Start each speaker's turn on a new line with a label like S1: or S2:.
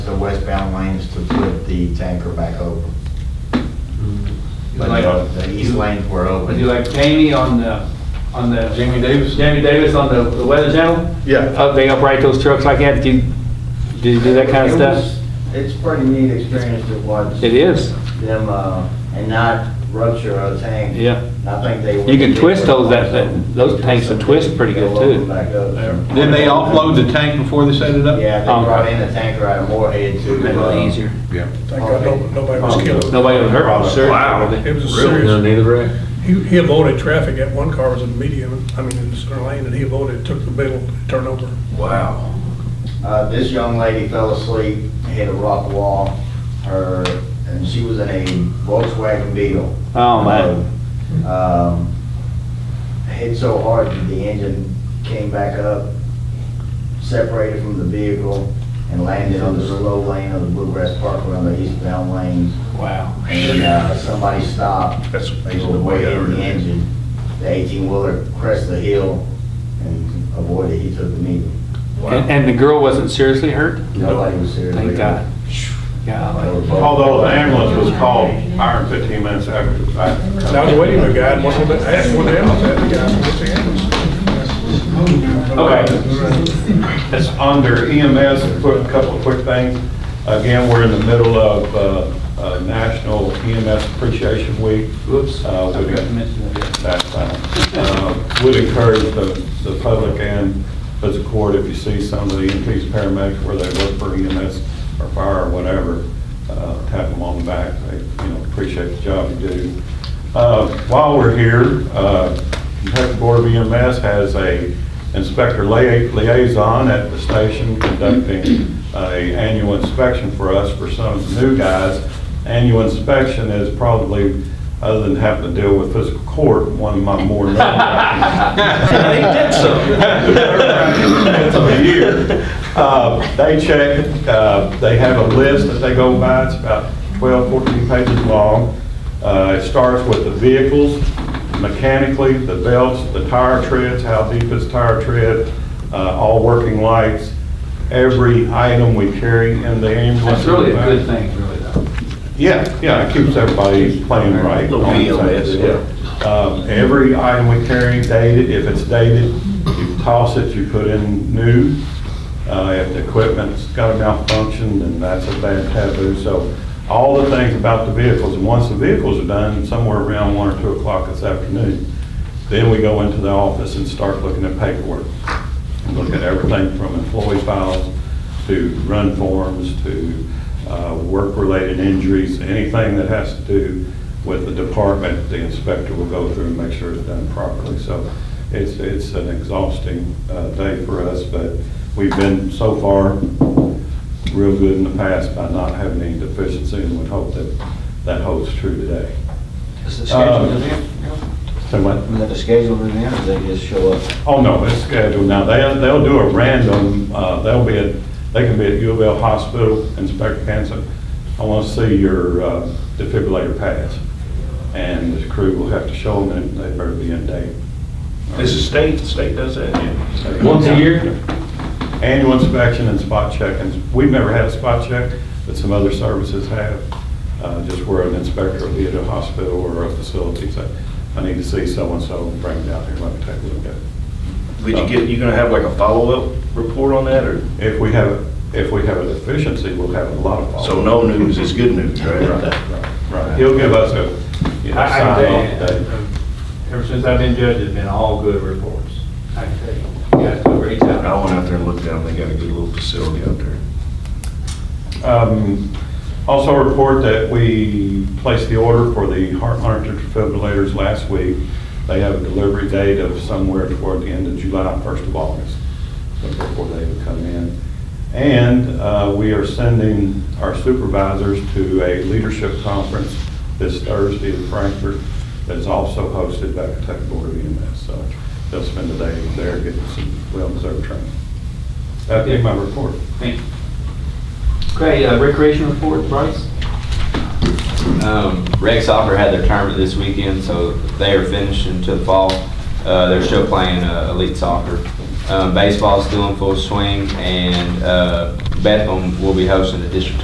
S1: the westbound lanes to flip the tanker back over. But
S2: Like,
S1: the- the east lanes were
S2: would
S1: open.
S2: you like Jamie on the, on the,
S3: Jamie Davis?
S2: Jamie Davis on the the weather channel?
S3: Yeah.
S2: Up, they upright those trucks like that, do you, do you do that kind of
S1: It was-
S2: stuff?
S1: It's pretty neat experience to watch.
S2: It is,
S1: Them, uh, and not rupture a tank.
S2: Yeah.
S1: I think they.
S2: You can twist those, that- that- those tanks will twist pretty good,
S1: They'll open
S2: too.
S1: back up.
S3: Didn't they offload the tank before they set it up?
S1: Yeah, they
S2: Um,
S1: brought in a tanker out of Moorhead to.
S2: make it a
S1: uh,
S2: little easier.
S4: Yeah.
S5: Thank God no- nobody was killed.
S2: Nobody was hurt,
S3: Oh,
S2: I'm sure.
S5: It was a
S4: None
S5: serious,
S4: either way?
S5: he he avoided traffic, that one car was in the median, I mean, in the center lane, and he avoided, took the middle, turned over.
S4: Wow.
S1: Uh, this young lady fell asleep, hit a rock wall, her, and she was in a Volkswagen Beetle.
S2: Oh, man.
S1: Um, hit so hard that the engine came back up, separated from the vehicle, and landed on the slow lane of the Bluegrass Parkway on the eastbound lane.
S2: Wow.
S1: And, uh, somebody stopped,
S5: That's
S1: they were way in the engine, the eighteen-wheeler crested the hill and avoided, he took the needle.
S2: And, and the girl wasn't seriously hurt?
S1: Nobody was seriously.
S2: Thank God.
S1: They
S2: Yeah.
S1: were both-
S6: Although the ambulance was called iron 15 minutes after the fact.
S5: And I was waiting for the guy, and one of the, asked one of the animals, had the guy, what's the
S6: Okay. It's under EMS, a quick- couple of quick things. Again, we're in the middle of uh, uh, National EMS Appreciation Week.
S2: Whoops.
S6: Uh,
S2: I
S6: we-
S2: forgot to mention that.
S6: That's fine. Uh, Would encourage the, the public and the court, if you see some of the EMTs, paramedics, where they work for EMS or fire or whatever, uh, tap them on the back, they, you know, appreciate the job you do. Uh, While we're here, uh, Kentucky Board of EMS has a inspector lia- liaison at the station conducting a annual inspection for us for some of the new guys. Annual inspection is probably, other than having to deal with physical court, one of my more.
S3: They did
S6: That's a year. Uh, They check, uh, they have a list that they go by, it's about 12, 14 pages long. Uh, It starts with the vehicles, mechanically, the belts, the tire treads, how deep is tire tread, uh, all working lights, every item we carry in the ambulance.
S2: That's really a good thing, really, though.
S6: Yeah, yeah, it keeps everybody playing right.
S4: Little
S6: on the same
S4: VLS, yeah.
S6: deal. Um, Every item we carry dated, if it's dated, you toss it, you put in new. Uh, If the equipment's got a malfunction, then that's a bad taboo. So all the things about the vehicles, and once the vehicles are done, somewhere around one or two o'clock this afternoon, then we go into the office and start looking at paperwork. Look at everything from employee files to run forms to uh, work-related injuries, anything that has to do with the department, the inspector will go through and make sure it's done properly. So it's, it's an exhausting uh, day for us, but we've been so far real good in the past by not having any deficiency and would hope that that holds true today.
S7: Is the schedule
S6: Um,
S7: in there?
S6: So what?
S7: Is Uh, that the schedule in there, or they just show up?
S6: Oh, no, it's scheduled now. They'll, they'll do a random, uh, they'll be at, they can be at U of L Hospital, Inspector Hanson. I want to see your uh, defibrillator pads. And the crew will have to show them and they better be in date.
S3: This is state, the state does that.
S2: Once a year?
S6: Annual inspection and spot check. And we've never had a spot check, but some other services have. Uh, just where an inspector will be at a hospital or a facility, say, I need to see so-and-so, bring it down here, let me take a look at it.
S3: Would you get, you gonna have like a follow-up report on that, or,
S6: If we have, if we have a deficiency, we'll have a lot of.
S3: so no news is good news,
S6: Right,
S3: right?
S6: right, right. He'll give us a, you know,
S2: I- I can
S6: sign off
S2: tell you,
S6: date.
S2: Ever since I've been judge, it's been all good reports. I can tell you, you guys do a great job.
S3: I went out there and looked down, they got a good little facility out there.
S6: Um, Also report that we placed the order for the heart monitor defibrillators last week. They have a delivery date of somewhere toward the end of July, first of August, so before they would come in. And uh, we are sending our supervisors to a leadership conference this Thursday in Frankfurt that's also hosted by Kentucky Board of EMS. So they'll spend the day there getting some well-deserved training. That'd be my report.
S2: Thank you. Okay, uh, recreation report, Bryce?
S8: Um, Rex Soccer had their tournament this weekend, so they are finished into the fall. Uh, they're still playing uh, elite soccer. Um, baseball's still in full swing, and uh, Bethel will be hosting the district